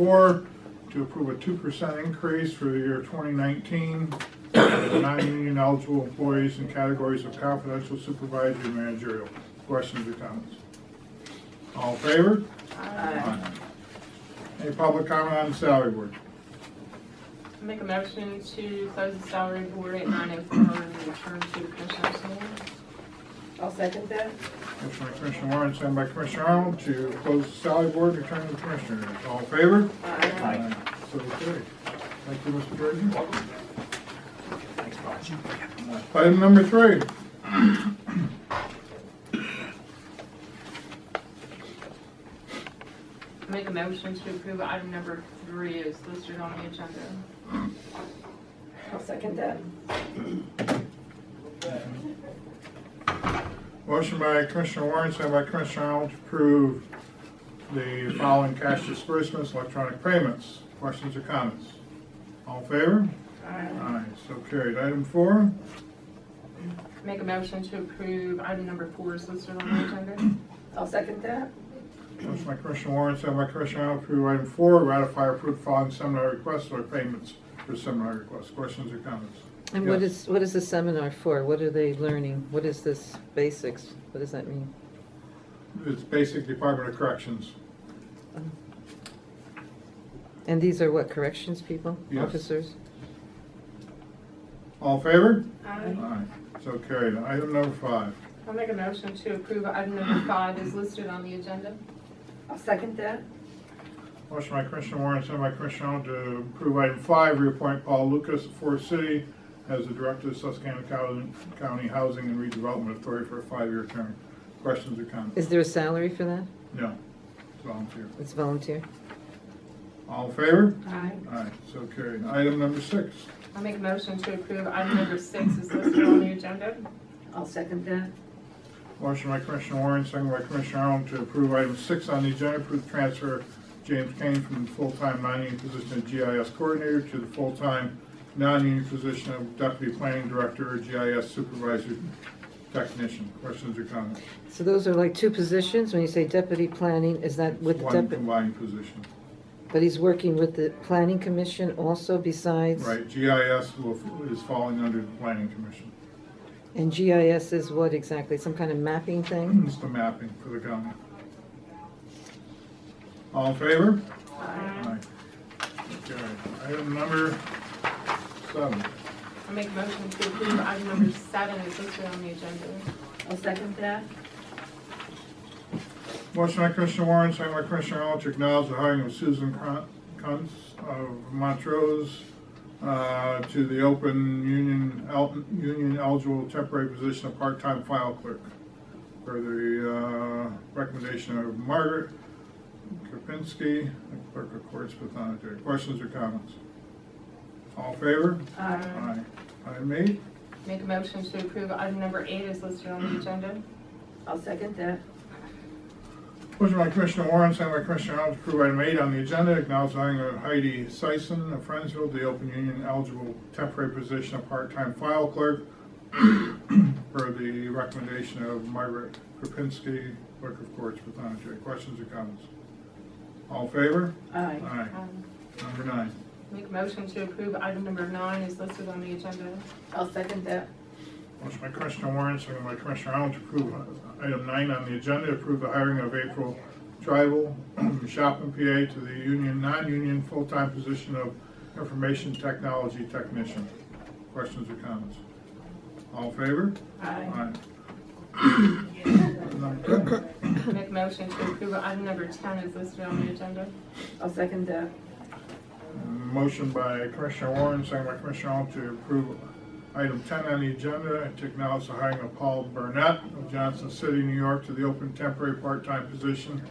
Four, to approve a two percent increase for the year twenty nineteen for non-union eligible employees in categories of confidential supervisory and managerial. Questions or comments? All in favor? Uh, Aye. Any public comment on the salary board? Make a motion to close the salary board at nine oh four and return to the commissioners' meeting. I'll second that. Motion by Commissioner Warren, second by Commissioner Arnold, to close the salary board, return to the commissioners. All in favor? Uh, Aye. So carried. Thank you, Mr. Jordan. Item number three. Make a motion to approve item number three is listed on the agenda. I'll second that. Motion by Commissioner Warren, second by Commissioner Arnold, to approve the following cash disbursements, electronic payments. Questions or comments? All in favor? Uh, Aye. So carried. Item four. Make a motion to approve item number four is listed on the agenda. I'll second that. Motion by Commissioner Warren, second by Commissioner Arnold, to approve item four, ratify or approve following seminar requests or payments for seminar requests. Questions or comments? And what Yes. is, what is the seminar for? What are they learning? What is this basics? What does that mean? It's basic Department of Corrections. And these are what, corrections people? Yes. Officers? All in favor? Aye. Aye. So carried. Item number five. I'll Uh, make a motion to approve item number five is listed on the agenda. I'll second that. Motion by Commissioner Warren, sent by Commissioner Arnold to approve item five, reappoint Paul Lucas of Forest City as the Director of Susquehanna County- County Housing and Redevelopment Authority for a five-year term. Questions or comments? Is there a salary for that? No. It's volunteer. It's volunteer? All in favor? Aye. Aye, so carried. Item number six. I'll make a motion to approve item number six is listed on the agenda. I'll second that. Motion by Commissioner Warren, second by Commissioner Arnold to approve item six on the agenda, approve the transfer of James Kane from the full-time non-union position of GIS coordinator to the full-time non-union position of deputy planning director or GIS supervisor technician. Questions or comments? So those are like two positions? When you say deputy planning, is that with the One deputy? combined position. But he's working with the planning commission also besides? Right, GIS will- is falling under the planning commission. And GIS is what exactly? Some kind of mapping thing? It's the mapping for the county. All in favor? Aye. Aye. Okay, item number seven. I'll make a motion to approve item number seven is listed on the agenda. I'll second that. Motion by Commissioner Warren, second by Commissioner Arnold to acknowledge the hiring of Susan Cron- Kuntz of Montrose uh, to the open union, el- union eligible temporary position of part-time file clerk per the uh, recommendation of Margaret Kapinski, clerk of courts, pathonetary. Questions or comments? All in favor? Aye. Item eight. Make a motion to approve item number eight is listed on the agenda. I'll second that. Motion by Commissioner Warren, second by Commissioner Arnold, to approve item eight on the agenda, acknowledging that Heidi Seisen of Friendsville, the open union eligible temporary position of part-time file clerk per the recommendation of Margaret Kropinski, clerk of courts, pathonetary. Questions or comments? All in favor? Aye. Aye. Um, Number nine. Make a motion to approve item number nine is listed on the agenda. I'll second that. Motion by Commissioner Warren, second by Commissioner Arnold to approve item nine on the agenda, approve the hiring of April Tribal, Shopman, PA, to the union, non-union, full-time position of information technology technician. Questions or comments? All in favor? Aye. Number ten. Make a motion to approve item number 10 is listed on the agenda. I'll second that. Motion by Commissioner Warren, second by Commissioner Arnold to approve item ten on the agenda, to acknowledge the hiring of Paul Burnett of Johnson City, New York, to the open temporary part-time position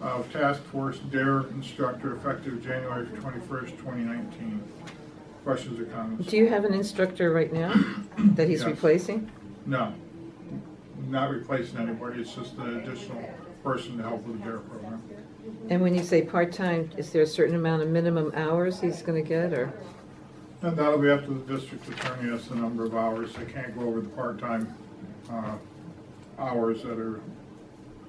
of Task Force Dare Instructor effective January twenty-first, twenty nineteen. Questions or comments? Do you have an instructor right now that he's Yes. replacing? No. Not replacing anybody, it's just an additional person to help with the Dare program. And when you say part-time, is there a certain amount of minimum hours he's gonna get or? And that'll be up to the district attorney, as the number of hours, they can't go over the part-time, uh, hours that are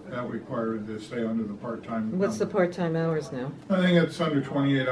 that required to stay under the part-time. What's the number. part-time hours now? I think it's under twenty-eight